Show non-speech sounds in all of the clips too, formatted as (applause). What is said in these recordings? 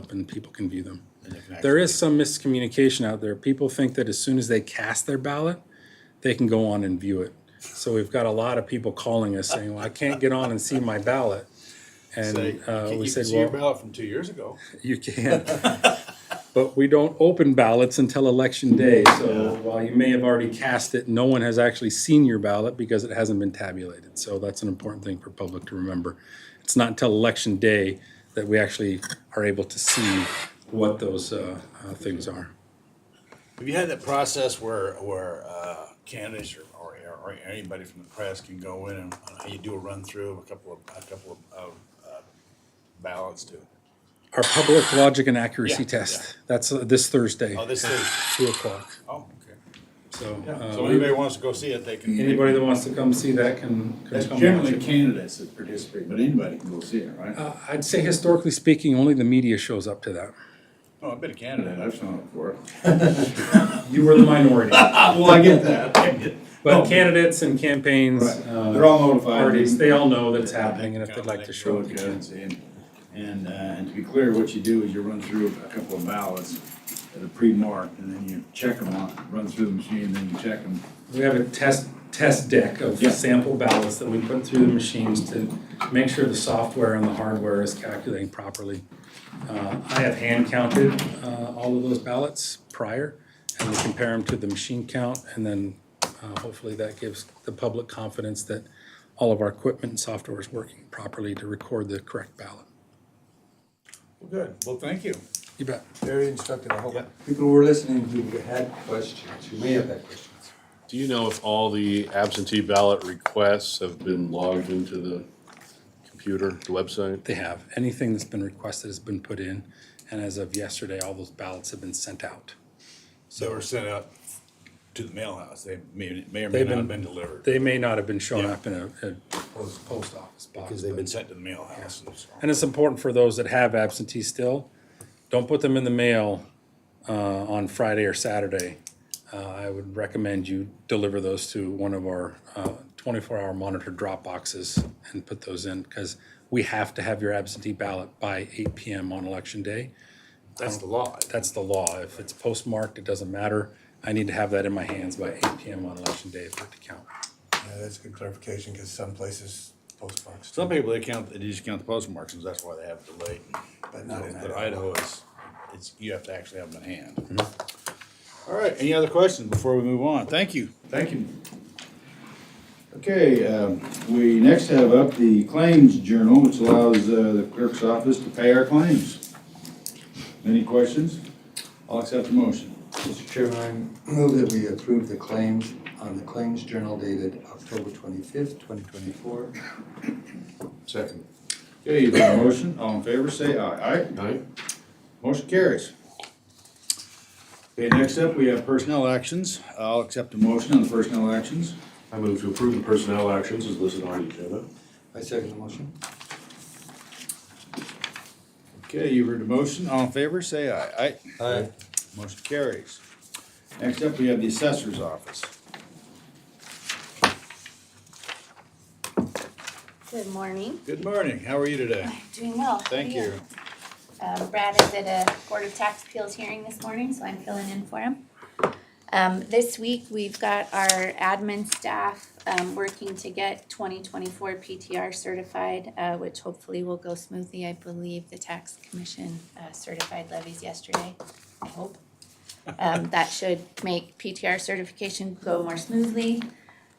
up and people can view them. There is some miscommunication out there. People think that as soon as they cast their ballot, they can go on and view it. So we've got a lot of people calling us saying, well, I can't get on and see my ballot. Say, And uh, you we can said, see your well, ballot from two years ago. you can. But we don't open ballots until election day. So while you may have already cast it, no one has actually seen your ballot because it hasn't been tabulated. So that's an important thing for public to remember. It's not until election day that we actually are able to see what those uh, uh, things are. Have you had that process where, where uh, candidates or, or, or anybody from the press can go in and uh, you do a run through of a couple of, a couple of, of uh, ballots too? Our public logic and accuracy Yeah, test. That's uh, this Thursday, Oh, this is, two o'clock. oh, okay. So So uh, anybody wants to go see it, they can. anybody that wants to come see that can can That's come generally watch it. candidates that participate, but anybody can go see it, right? Uh, I'd say historically speaking, only the media shows up to that. No, Oh, I've been a That candidate. I've shown it (laughs) for. You were the minority. Well, I get that. I get- But candidates and campaigns, Oh. Right. uh, They're all notified. parties, they all know that's happening and if they'd like to Show show it to it, they them can. and see. And- And, uh, and to be clear, what you do is you run through a couple of ballots that are pre-marked and then you check them out, run through the machine, and then you check them. We have a test, test deck of Yeah. sample ballots that we put through the machines to make sure the software and the hardware is calculating properly. Uh, I have hand counted uh, all of those ballots prior, and we compare them to the machine count, and then uh, hopefully that gives the public confidence that all of our equipment and software is working properly to record the correct ballot. Well, Good, well, thank you. You bet. Very instructive, I hope Yeah. people who were listening who had questions, who may have had questions. Do you know if all the absentee ballot requests have been logged into the computer, the website? They have. Anything that's been requested has been put in, and as of yesterday, all those ballots have been sent out. So we're sent out to the mail house. They may, may or may They've not have been- been delivered. They may not have been shown up in a, a post, post office box. Because they've but- been sent to the mail house. and so- And it's important for those that have absentee still, don't put them in the mail, uh, on Friday or Saturday. Uh, I would recommend you deliver those to one of our, uh, twenty-four hour monitored drop boxes and put those in, because we have to have your absentee ballot by eight PM on election day. That's the law. That's the law. If it's postmarked, it doesn't matter. I need to have that in my hands by eight PM on election day for it to count. Yeah, that's good clarification, because some places post box, Some people, they count, they just count the postmarks, and that's why they have it delayed. but not in But Idaho Idaho. is, it's, you have to actually have them in hand. All right, any other questions before we move on? Thank you. Mm-hmm. Thank you. Okay, um, we next have up the claims journal, which allows uh, the clerk's office to pay our claims. Any questions? I'll accept the motion. Mr. Chairman, I move that we approve the claims on the Claims Journal dated October twenty-fifth, twenty twenty-four. Second. Okay, you've got a motion, all in favor, say aye. Aye? Aye. Motion carries. Okay, next up, we have personnel actions. I'll accept a motion on the personnel actions. I move to approve the personnel actions as listed on the agenda. I second the motion. Okay, you've heard the motion. All in favor, say aye. Aye. Aye. Motion carries. Next up, we have the assessor's office. Good morning. Good morning, how are you today? Doing well. How are Thank you. Um, Brad is at a Board of Tax Appeals hearing this morning, so I'm filling in for him. Um, this week, we've got our admin staff, um, working to get twenty twenty-four PTR certified, uh, which hopefully will go smoothly. I believe the tax commission, uh, certified levies yesterday, I hope. Um, (laughs) that should make PTR certification go more smoothly,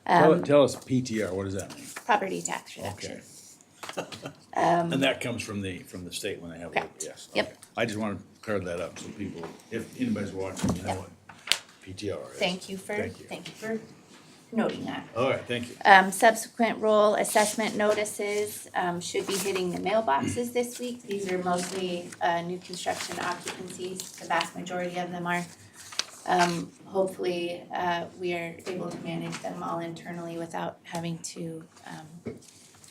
Tell, Um, tell us PTR, what does that mean? property tax reduction. Okay. And that comes from the, from the state when they have, it, um, Correct. yes. Yep. okay. I just wanna clear that up, so people, if anybody's watching, you know what PTR is. Thank you for, Thank you. thank you for noting that. All right, thank you. Um, subsequent role assessment notices, um, should be hitting the mailboxes this week. These are mostly, uh, new construction occupancies, the vast majority of them are. Um, hopefully, uh, we are able to manage them all internally without having to, um,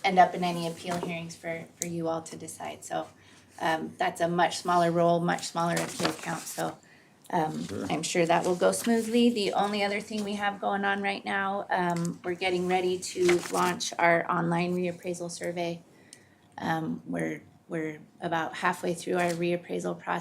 end up in any appeal hearings for, for you all to decide, so. Um, that's a much smaller role, much smaller appeal count, so, I'm sure that will go smoothly. The only other thing we have going on right now, um, we're getting ready to launch our online reappraisal survey. Um, we're We're about halfway through our reappraisal process.